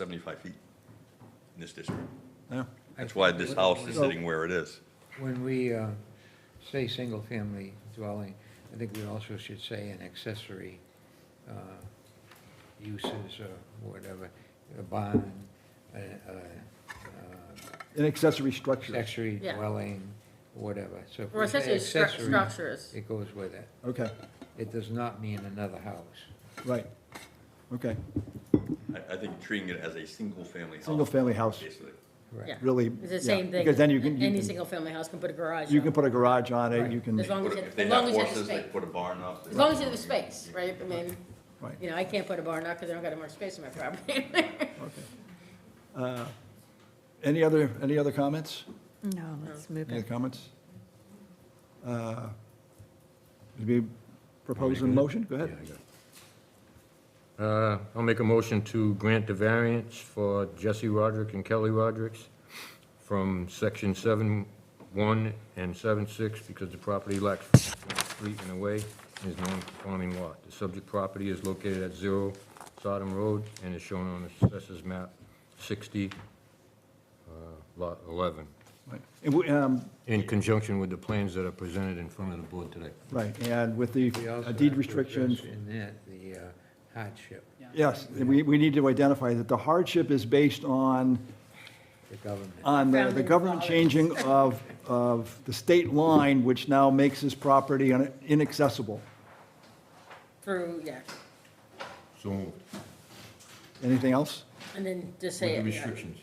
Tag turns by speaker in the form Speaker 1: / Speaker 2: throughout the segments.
Speaker 1: 75 feet in this district.
Speaker 2: Yeah.
Speaker 1: That's why this house is sitting where it is.
Speaker 3: When we uh, say single-family dwelling, I think we also should say an accessory uh, uses or whatever, a barn, a- a,
Speaker 2: An accessory
Speaker 3: uh,
Speaker 2: structure.
Speaker 3: accessory
Speaker 4: Yeah.
Speaker 3: dwelling, whatever. So if
Speaker 4: Or
Speaker 3: we say
Speaker 4: accessory stru-
Speaker 3: accessory,
Speaker 4: structures.
Speaker 3: it goes with it.
Speaker 2: Okay,
Speaker 3: It does not mean another house.
Speaker 2: right. Okay,
Speaker 1: I, I think treating it as a single-family house.
Speaker 2: single-family house,
Speaker 1: Basically.
Speaker 3: Correct.
Speaker 4: Yeah.
Speaker 2: really.
Speaker 4: It's the
Speaker 2: yeah,
Speaker 4: same thing.
Speaker 2: Because then you can,
Speaker 4: Any
Speaker 2: you can,
Speaker 4: single-family house can put a garage
Speaker 2: you can
Speaker 4: on,
Speaker 2: put a garage on it, you
Speaker 3: Right.
Speaker 2: can,
Speaker 4: As long-
Speaker 1: Put
Speaker 4: as
Speaker 1: a-
Speaker 4: it-
Speaker 1: If they
Speaker 4: as long
Speaker 1: have
Speaker 4: as it has
Speaker 1: horses, they
Speaker 4: space.
Speaker 1: put a barn up.
Speaker 4: as long as there's space, right? I mean,
Speaker 2: right,
Speaker 4: you know, I can't put a barn up because I don't got enough space in my property.
Speaker 2: okay. Uh, Any other, any other comments?
Speaker 5: No, let's move
Speaker 2: Any
Speaker 5: it.
Speaker 2: other comments? Uh, Did we propose a motion? Go ahead.
Speaker 6: Uh, I'll make a motion to grant the variance for Jesse Roderick and Kelly Rodericks from section seven one and seven six because the property lacks street and a way and is non-conforming lot. The subject property is located at zero Sodom Road and is shown on the assessors map sixty, uh, lot eleven,
Speaker 2: Right. And we, um,
Speaker 6: in conjunction with the plans that are presented in front of the board today.
Speaker 2: Right, and with the
Speaker 3: We also
Speaker 2: uh,
Speaker 3: have
Speaker 2: deed
Speaker 3: to
Speaker 2: restrictions,
Speaker 3: address In that, the uh, hardship,
Speaker 2: yes, we, we need to identify that the hardship is based on
Speaker 3: the government.
Speaker 2: on the, the
Speaker 4: Grounding
Speaker 2: government
Speaker 4: policy.
Speaker 2: changing of, of the state line, which now makes this property un- inaccessible.
Speaker 4: Through, yeah,
Speaker 6: So, with
Speaker 2: Anything else?
Speaker 4: and then just say,
Speaker 6: the
Speaker 4: it, you know,
Speaker 6: restrictions.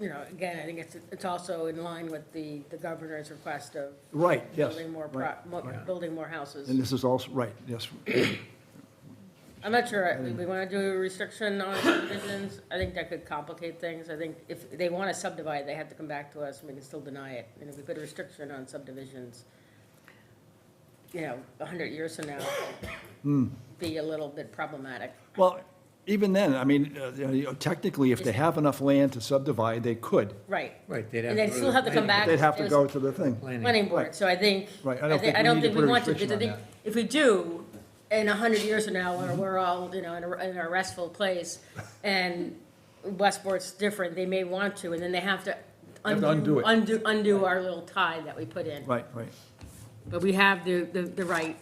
Speaker 4: you know, again, I think it's, it's also in line with the, the governor's request of
Speaker 2: Right, yes.
Speaker 4: building more, pro-
Speaker 2: right.
Speaker 4: mo- building more houses.
Speaker 2: And this is also, right, yes,
Speaker 4: I'm not sure,
Speaker 2: Um,
Speaker 4: we- we want to do a restriction on subdivisions, I think that could complicate things, I think if they want to subdivide, they have to come back to us, and we can still deny it, and if we put a restriction on subdivisions, you know, a hundred years from now,
Speaker 2: Hmm.
Speaker 4: be a little bit problematic.
Speaker 2: well, even then, I mean, uh, you know, technically, if they have enough land to subdivide, they could.
Speaker 4: Right.
Speaker 3: Right, they'd have
Speaker 4: And they
Speaker 3: to go
Speaker 4: still
Speaker 3: to
Speaker 4: have to
Speaker 3: the
Speaker 4: come back.
Speaker 2: They'd have to
Speaker 4: There's
Speaker 2: go to the thing.
Speaker 3: Planning
Speaker 4: Planning board,
Speaker 2: Right.
Speaker 4: so I think.
Speaker 2: Right, I don't
Speaker 4: thi-
Speaker 2: think we need to
Speaker 4: think we
Speaker 2: put a
Speaker 4: want to,
Speaker 2: restriction
Speaker 4: because I
Speaker 2: on
Speaker 4: think If we do, in a hundred years from now, when we're all, you know, in a, in a restful place, and Westport's different, they may want to, and then they have to
Speaker 2: Have to undo
Speaker 4: undo,
Speaker 2: it.
Speaker 4: undo, undo our little tie that we put in.
Speaker 2: Right, right,
Speaker 4: But we have the, the, the right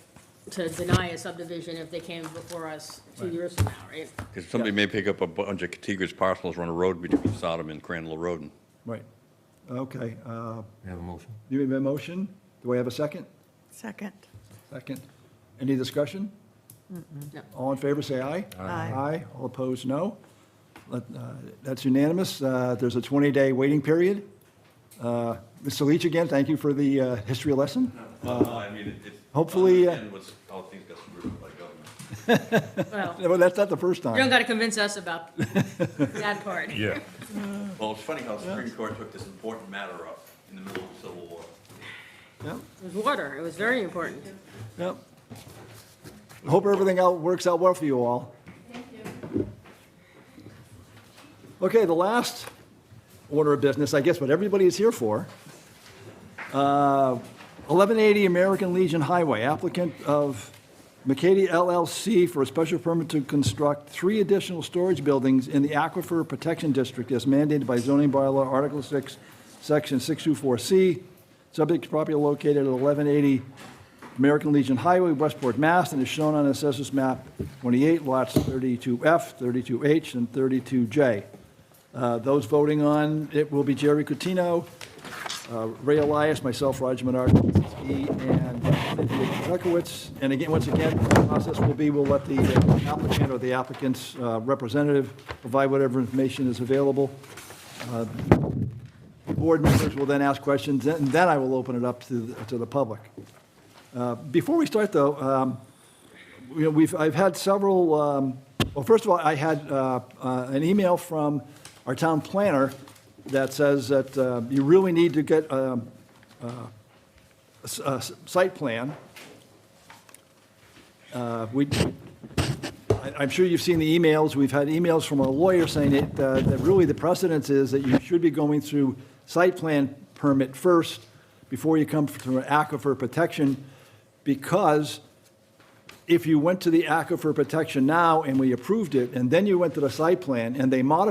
Speaker 4: to deny a subdivision if they came before us two years from now, right?
Speaker 1: Because somebody may pick up a bunch of contiguous parcels, run a road between Sodom and Crandall Road.
Speaker 2: right. Okay, uh,
Speaker 6: You have a motion?
Speaker 2: you have a motion? Do we have a second?
Speaker 5: Second.
Speaker 2: Second. Any discussion?
Speaker 4: No.
Speaker 2: All in favor, say aye.
Speaker 5: Aye.
Speaker 2: Aye. All opposed, no. Let- uh, That's unanimous. Uh, There's a 20-day waiting period. Uh, Mr. Leach, again, thank you for the uh, history lesson.
Speaker 1: Uh, I mean, it's.
Speaker 2: Hopefully, uh,
Speaker 1: understand what's- how things got screwed up by government.
Speaker 4: Well, you
Speaker 2: Well, that's not the first
Speaker 4: don't
Speaker 2: time.
Speaker 4: gotta convince us about that part.
Speaker 6: Yeah.
Speaker 1: Well, it's funny how the Supreme Court took this important matter up in the middle of the Civil War.
Speaker 2: Yep,
Speaker 4: It was water, it was very important.
Speaker 2: yep. Hope everything out, works out well for you all. Okay, the last order of business, I guess what everybody is here for. Uh, 1180 American Legion Highway, applicant of McCady LLC for a special permit to construct three additional storage buildings in the Aquifer Protection District as mandated by zoning bylaw Article 6, Section 624C. Subject property located at 1180 American Legion Highway, Westport, Mass., and is shown on Assessors Map 28, lots 32F, 32H, and 32J. Uh, Those voting on, it will be Jerry Cutino, uh, Ray Elias, myself, Roger Menard, E. and Cynthia Zekowitz. And again, once again, the process will be, we'll let the applicant or the applicant's uh, representative provide whatever information is available. Uh, Board members will then ask questions, and then I will open it up to, the- to the public. Uh, Before we start, though, um, you know, we've, I've had several, um, well, first of all, I had uh, uh, an email from our town planner that says that uh, you really need to get um, uh, a s- a s- site plan. Uh, We, I- I'm sure you've seen the emails, we've had emails from our lawyer saying that, uh, that really the precedence is that you should be going through site plan permit first before you come through an aquifer protection, because if you went to the aquifer protection now and we approved it, and then you went to the site plan and they modified